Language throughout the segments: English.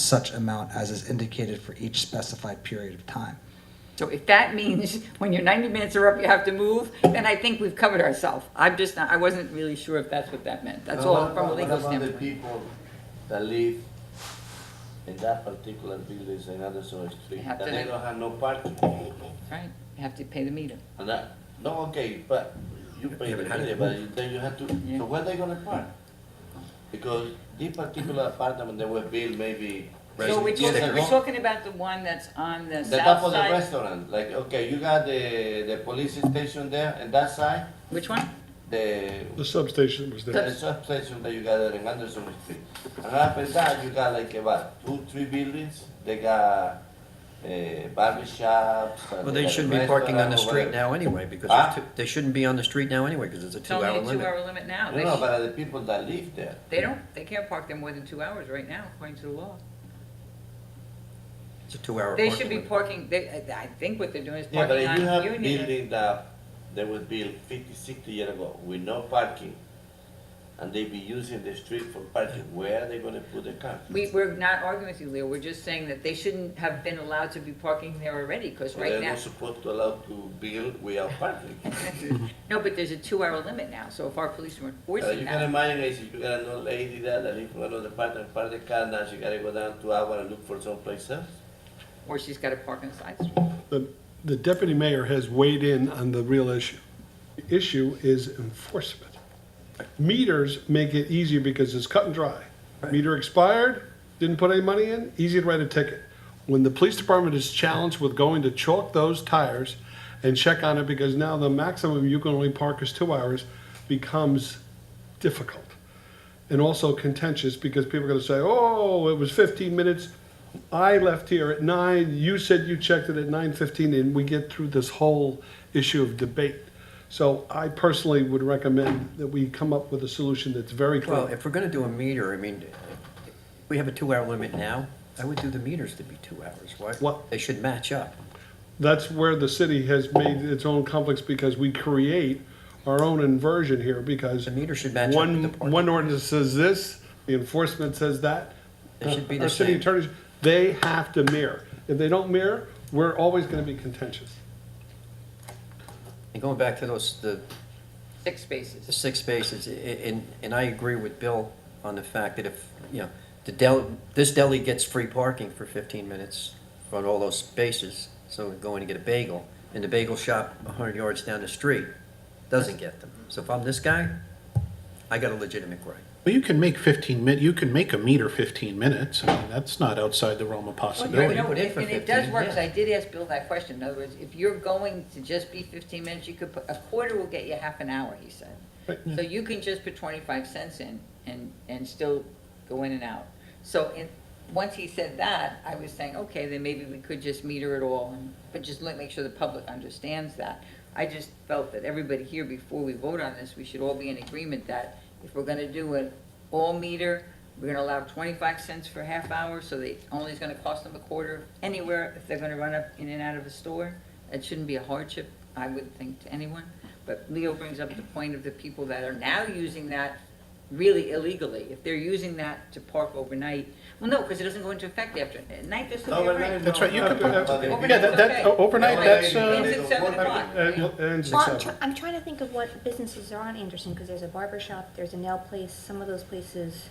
such amount as is indicated for each specified period of time. So if that means when your 90 minutes are up, you have to move, then I think we've covered ourselves. I'm just not, I wasn't really sure if that's what that meant. That's But all what from a about- legal What about the standpoint. people that live in that particular building, in other sort of street, have that to they live- don't have no parking? Right, you have to pay the meter. And that, no, okay, but you pay Yeah, the but how do meter, they but then you have to, Yeah. so where they gonna park? Because this particular apartment, they were built maybe. So we're Residents years talking, we're ago. talking about the one that's on the The top south of the side? restaurant, like, okay, you got the, the police station there, and that side, Which one? the, The substation was the there. substation that you got there in Anderson Street. And after that, you got like about two, three buildings, they got, uh, barber shops. and Well, they got a shouldn't be parking on restaurant or the street whatever. now anyway, because Huh? it's two- they shouldn't be on the street now anyway, because it's a It's only two-hour a limit. two-hour limit now. No, no, They- but the people that live there, They don't, they can't park there more than two hours right now, according to the law. It's a two-hour They parking should be limit. parking, they, I think what they're doing is Yeah, but parking if you on have Union. building that, they was built 50, 60 years ago with no parking, and they be using the street for parking, where are they gonna put the car? We, we're not arguing with you, Leo, we're just saying that they shouldn't have been allowed to be parking there already, because Well, they're right now, not supposed to allow to build without parking. no, but there's a two-hour limit now, so if our police were Uh, enforcing you can that, imagine, guys, if you got an old lady there that live in another part, and park the car, now she gotta go down two hours and look for someplace else. or she's gotta park on the side street. The, the deputy mayor has weighed in on the real issue. The issue is enforcement. Meters make it easier because it's cut and dry. Meter expired, didn't put any money in, easy to write a ticket. When the police department is challenged with going to chalk those tires and check on it, because now the maximum you can only park is two hours, becomes difficult. and also contentious because people are going to say, "Oh, it was 15 minutes. I left here at nine. You said you checked it at 9:15," and we get through this whole issue of debate. So I personally would recommend that we come up with a solution that's very Well, clear. if we're gonna do a meter, I mean, we have a two-hour limit now, I would do the meters to be two hours, why? What- They should match up. That's where the city has made its own conflicts because we create our own inversion here because The meter should match up with one the parking. one ordinance says this, the enforcement says that. It should be the Our city same. attorneys, they have to mirror. If they don't mirror, we're always going to be contentious. And going back to those, the, Six the spaces, six spaces, i- i- and, and I agree with Bill on the fact that if, you know, the deli, this deli gets free parking for fifteen minutes on all those spaces, so we're going to get a bagel, and the bagel shop a hundred yards down the street doesn't get them. So if I'm this guy, I got a legitimate gripe. Well, you can make 15 min, you can make a meter 15 minutes. I mean, that's not outside the realm of Well, No, no, you possibility. no, put in and for and it does 15, work, 'cause yeah. I did ask Bill that question, in other words, if you're going to just be fifteen minutes, you could put, a quarter will get you half an hour, he said. So you can just put twenty-five cents in and, and still go in and out. So in, once he said that, I was saying, okay, then maybe we could just meter it all, and- but just let, make sure the public understands that. I just felt that everybody here, before we vote on this, we should all be in agreement that if we're gonna do an all meter, we're gonna allow twenty-five cents for half hour, so they, only is gonna cost them a quarter anywhere if they're gonna run up in and out of a store. It shouldn't be a hardship, I would think, to anyone. But Leo brings up the point of the people that are now using that really illegally. If they're using that to park overnight, well, no, because it doesn't go into effect after, at night, there's still be a Overnight, right. That's right, you no, could no, put- but if you- Yeah, that, that, Okay. overnight, that's, uh, Ends at seven o'clock. And- and Well, six I'm, hours. try- I'm trying to think of what businesses are on Anderson, because there's a barber shop, there's a nail place, some of those places,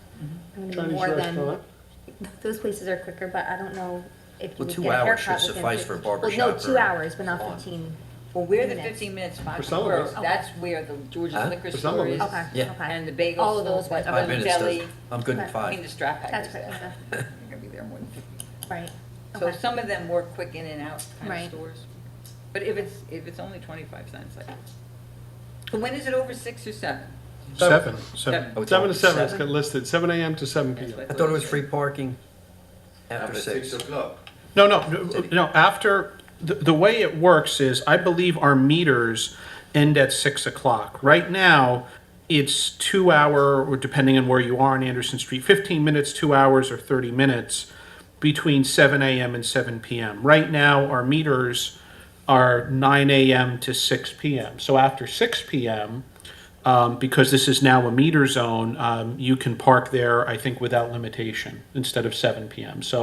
I mean, Mm-hmm. Chinese more than, restaurant. those places are quicker, but I don't know if you Well, would two get a hours haircut should within suffice for a 15 barber Well, no, shop two or hours, but not salon. fifteen. Well, where the Minutes. fifteen minutes For spots some of were, us. that's where the Huh? George's liquor For some store of is. us. Okay, Yeah. okay. And the bagel. All of those store, went the up. Five minutes does, deli, I'm good in I mean, the five. strap That's hackers correct, there. They're gonna be there more than fifteen. Right, So okay, some of them were quick in and out kind of Right. stores. But if it's, if it's only twenty-five cents, like. But when is it over six or seven? seven, Seven. seven. I would Seven tell to him seven, it's got listed, seven AM to seven That's PM. what I thought it was said. free parking after After six six. o'clock. No, no, no, no, after, the, the way it works is, I believe our meters end at six o'clock. Right now, it's two hour, or depending on where you are on Anderson Street, fifteen minutes, two hours, or thirty minutes between seven AM and seven PM. Right now, our meters are nine AM to six PM. So after six PM, um, because this is now a meter zone, um, you can park there, I think, without limitation, instead of seven PM. So